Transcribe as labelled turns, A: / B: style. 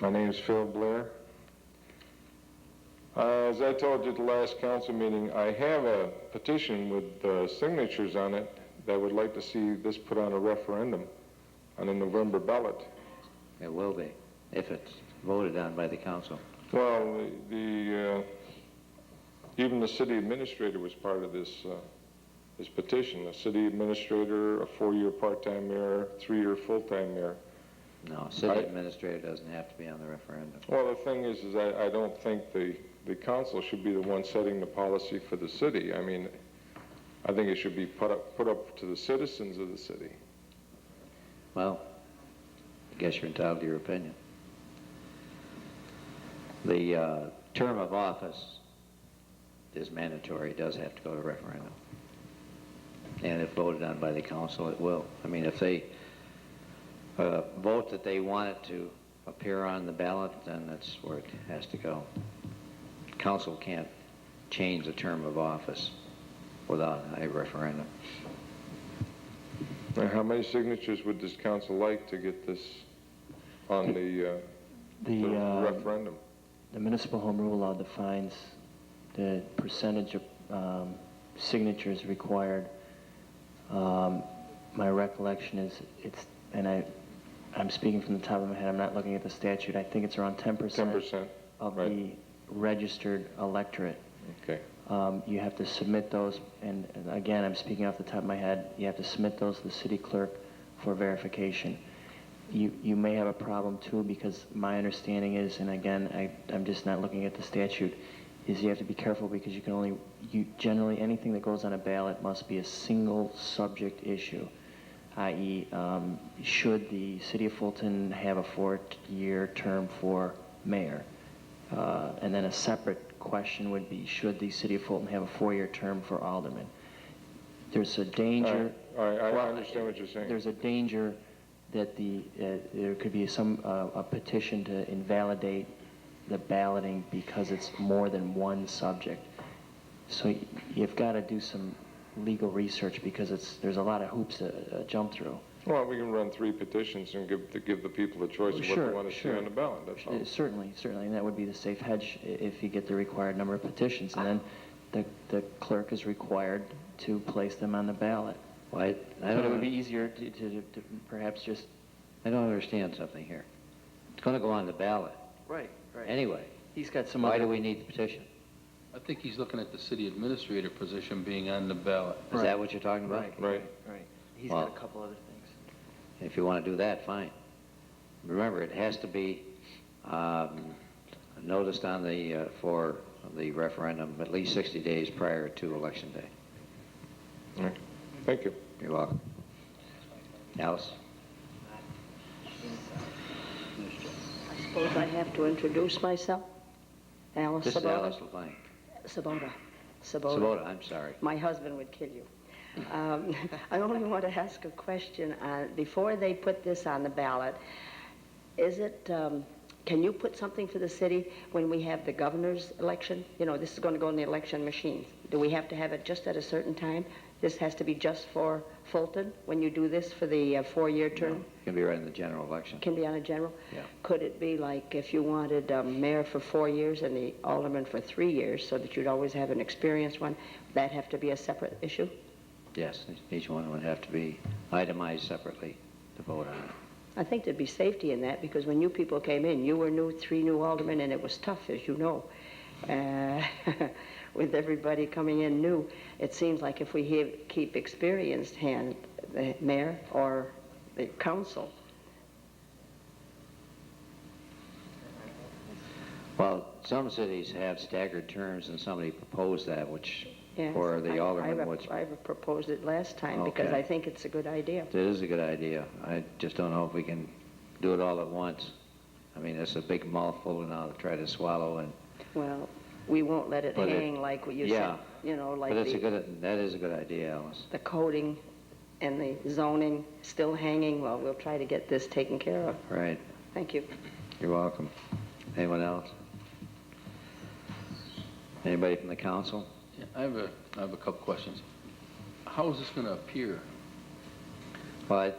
A: My name is Phil Blair. Uh, As I told you at the last council meeting, I have a petition with uh, signatures on it that would like to see this put on a referendum on a November ballot.
B: It will be, if it's voted on by the council.
A: Well, the, uh, even the city administrator was part of this, uh, this petition. The city administrator, a four-year part-time mayor, three-year full-time mayor.
B: No, city
A: I-
B: administrator doesn't have to be on the referendum.
A: Well, the thing is, is I, I don't think the, the council should be the one setting the policy for the city. I mean, I think it should be put up, put up to the citizens of the city.
B: Well, I guess you're entitled to your opinion. The uh, term of office is mandatory, it does have to go to referendum. And if voted on by the council, it will. I mean, if they uh, vote that they want it to appear on the ballot, then that's where it has to go. Council can't change the term of office without a referendum.
A: Now, how many signatures would this council like to get this on the, uh, the
C: The, uh,
A: referendum?
C: the municipal home rule law defines the percentage of um, signatures required. Um, My recollection is, it's, and I, I'm speaking from the top of my head, I'm not looking at the statute, I think it's around ten percent.
A: 10%,
C: Of
A: right.
C: the registered electorate.
A: Okay.
C: Um, You have to submit those, and and again, I'm speaking off the top of my head, you have to submit those to the city clerk for verification. You, you may have a problem too, because my understanding is, and again, I, I'm just not looking at the statute, is you have to be careful because you can only, you, generally, anything that goes on a ballot must be a single subject issue, i.e., um, should the city of Fulton have a four-year term for mayor? Uh, And then a separate question would be, should the city of Fulton have a four-year term for alderman? There's a danger.
A: All right, all right, I
C: Well,
A: understand what you're saying.
C: There's a danger that the, uh, there could be some, uh, a petition to invalidate the balloting because it's more than one subject. So y- you've got to do some legal research because it's, there's a lot of hoops to uh, jump through.
A: Well, we can run three petitions and give, to give the people the choice of what they
C: Sure,
A: want to see
C: sure.
A: on the ballot, that's all.
C: Uh, Certainly, certainly, and that would be the safe hedge i- if you get the required number of petitions. And then the, the clerk is required to place them on the ballot.
B: Why, I
C: But
B: don't...
C: it would be easier to, to to perhaps just.
B: I don't understand something here. It's going to go on the ballot.
C: Right,
B: Anyway,
C: He's got some
B: why
C: other.
B: do we need the petition?
D: I think he's looking at the city administrator position being on the ballot.
B: Is that what you're talking about?
A: Right.
C: Right. He's got
B: Well-
C: a couple other things.
B: If you want to do that, fine. Remember, it has to be um, noticed on the, uh, for the referendum at least 60 days prior to Election Day.
A: All right. Thank you.
B: You're welcome. Alice?
E: I suppose I have to introduce myself. Alice
B: This is Alice
E: Sabota.
B: LeBlanc.
E: Sabota. Sabota.
B: Sabota, I'm sorry.
E: My husband would kill you. Um, I only want to ask a question. Uh, before they put this on the ballot, is it, um, can you put something for the city when we have the governor's election? You know, this is going to go in the election machines. Do we have to have it just at a certain time? This has to be just for Fulton when you do this for the uh, four-year term?
B: Going to be right in the general election.
E: Can be on a general?
B: Yeah.
E: Could it be like if you wanted a mayor for four years and the alderman for three years, so that you'd always have an experienced one, that have to be a separate issue?
B: Yes, each one would have to be itemized separately to vote on it.
E: I think there'd be safety in that, because when you people came in, you were new, three new aldermen, and it was tough, as you know. Uh, With everybody coming in new, it seems like if we have- keep experienced hand, the mayor or the council,
B: Well, some cities have staggered terms, and somebody proposed that, which,
E: Yes,
B: for
E: I-
B: the
E: I
B: alderman,
E: rep-
B: which,
E: I proposed it last time, because
B: Okay.
E: I think it's a good idea.
B: that is a good idea. I just don't know if we can do it all at once. I mean, it's a big mouthful now to try to swallow, and,
E: Well, we won't let it
B: But it-
E: hang like what you said,
B: yeah.
E: you know, like
B: but it's a
E: the,
B: good, that is a good idea, Alice.
E: the coding and the zoning still hanging. Well, we'll try to get this taken care of.
B: All right,
E: Thank you.
B: you're welcome. Anyone else? Anybody from the council?
D: Yeah, I have a, I have a couple questions. How is this going to appear?
B: Well, I